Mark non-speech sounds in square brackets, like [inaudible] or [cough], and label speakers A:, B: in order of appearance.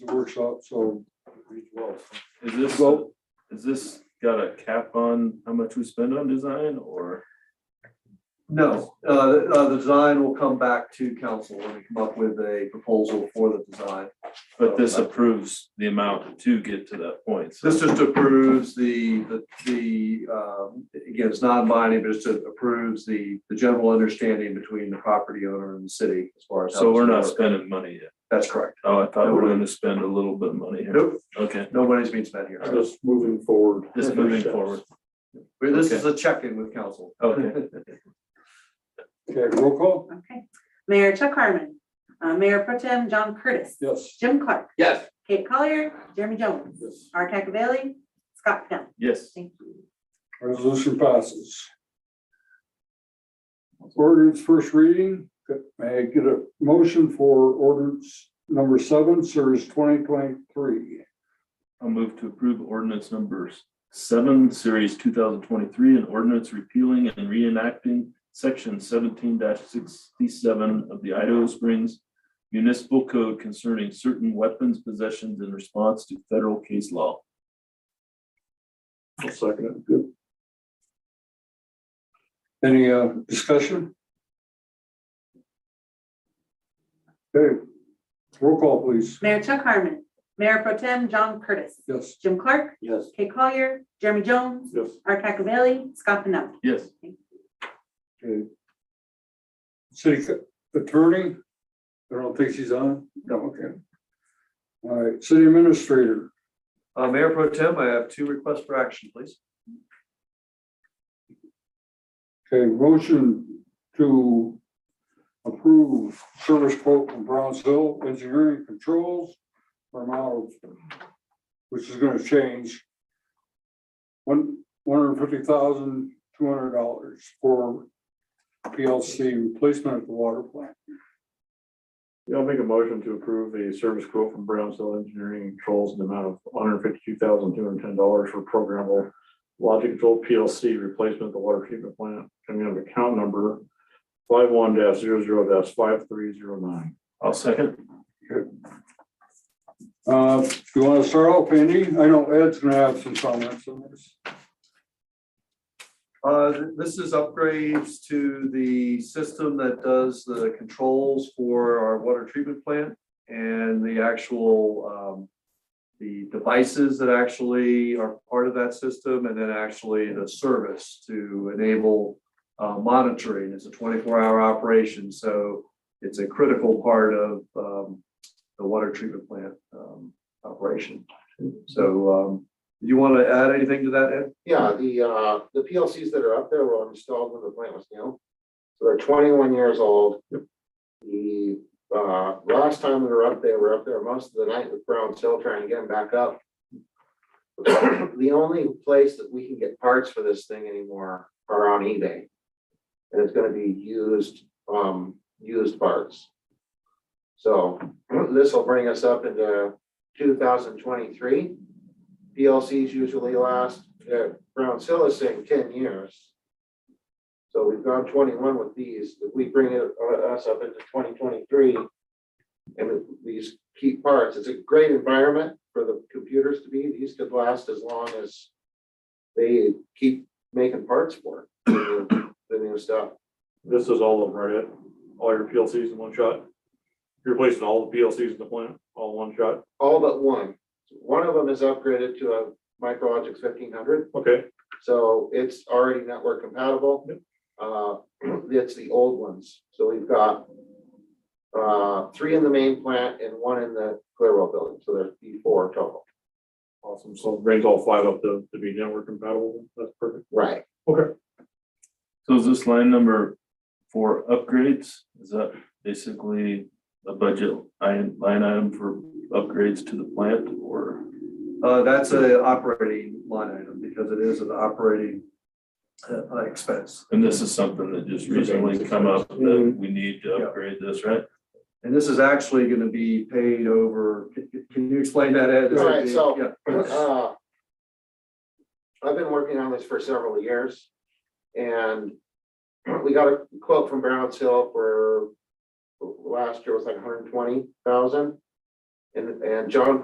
A: workshop, so. we will.
B: Is this,
A: Well-
B: is this got a cap on how much we spend on design or?
C: No, uh, uh, the design will come back to council when we come up with a proposal for the design.
B: But this approves the amount to get to that point. So
C: This just approves the, the, the, um, again, it's non-binding, but it just approves the, the general understanding between the property owner and the city as far as. how
B: so we're
C: this
B: not
C: works.
B: spending money yet.
C: That's correct.
B: Oh, I thought we were gonna spend a little bit of money here.
C: Nope,
B: Okay,
C: no money's being spent here.
A: Just moving forward.
B: just moving forward.
C: But This is a check-in with council.
B: [laughs] Okay.
A: Okay, roll call?
D: Okay. Mayor Chuck Harmon, uh, Mayor Pro Tem John Curtis,
A: Yes.
D: Jim Clark,
C: Yes.
D: Kate Collier, Jeremy Jones,
A: Yes.
D: R. Cacavelli, Scott Pennell.
B: Yes,
D: Thank you.
A: Resolution passes. Ordinance first reading, may I get a motion for ordinance number seven, series twenty twenty-three?
B: I'll move to approve ordinance numbers seven, series two thousand twenty-three, and ordinance repealing and reenacting section seventeen sixty-seven of the Idaho Springs Municipal Code concerning certain weapons possessions in response to federal case law.
A: I'll second it. Good. Any uh, discussion? Okay, roll call, please.
D: Mayor Chuck Harmon, Mayor Pro Tem John Curtis,
A: Yes.
D: Jim Clark,
A: Yes.
D: Kate Collier, Jeremy Jones,
A: Yes.
D: R. Cacavelli, Scott Pennell.
B: Yes.
A: Okay. City c- attorney, I don't think she's on. No, okay. All right, city administrator,
C: Uh, Mayor Pro Tem, I have two requests for action, please.
A: okay, motion to approve service quote from Brownsville Engineering Controls for amount of, which is gonna change one, one hundred fifty thousand, two hundred dollars for PLC replacement at the water plant.
E: Yeah, I'll make a motion to approve a service quote from Brownsville Engineering and Controls in the amount of one hundred fifty-two thousand, two hundred ten dollars for programmable logic control PLC replacement at the water treatment plant, coming out of account number five one dash zero zero dash five three zero nine.
B: I'll second.
A: Uh, do you wanna start off, Andy? I know Ed's gonna have some comments on this.
C: Uh, th- this is upgrades to the system that does the controls for our water treatment plant and the actual, um, the devices that actually are part of that system and then actually the service to enable uh, monitoring. It's a twenty-four hour operation, so it's a critical part of, um, the water treatment plant, um, operation. So, um, you want to add anything to that, Ed?
F: Yeah, the, uh, the PLCs that are up there were installed when the plant was new. So they're twenty-one years old. The, uh, last time we were up there, we were up there most of the night with Brown Hill trying to get them back up. The only place that we can get parts for this thing anymore are on eBay. And it's gonna be used, um, used parts. So this will bring us up into two thousand twenty-three. PLCs usually last, uh, Brown's Hill is saying ten years. So we've gone twenty-one with these, if we bring it, uh, us up into twenty twenty-three. And with these key parts, it's a great environment for the computers to be, these could last as long as. They keep making parts for it, the new- the new stuff,
E: This is all of them, right? Ed? All your PLCs in one shot? You're replacing all the PLCs in the plant, all in one shot?
F: all but one. One of them is upgraded to a MicroLogix fifteen hundred,
E: Okay,
F: So it's already network compatible. Uh, it's the old ones. So we've got uh, three in the main plant and one in the Clearwell building. So there's be four total.
E: awesome. So brings all five up to, to be network compatible. That's perfect.
F: Right.
B: So is this line number for upgrades? Is that basically a budget line line item for upgrades to the plant or?
C: Uh, that's a operating line item because it is an operating uh, uh, expense.
B: And this is something that just recently come up that we need to upgrade this, right?
C: And this is actually gonna be paid over, can- can you explain that, Ed? Is it-
F: Right, so-
C: yeah.
F: Uh, I've been working on this for several years. And we got a quote from Brown's Hill for last year was like hundred and twenty thousand. And, and John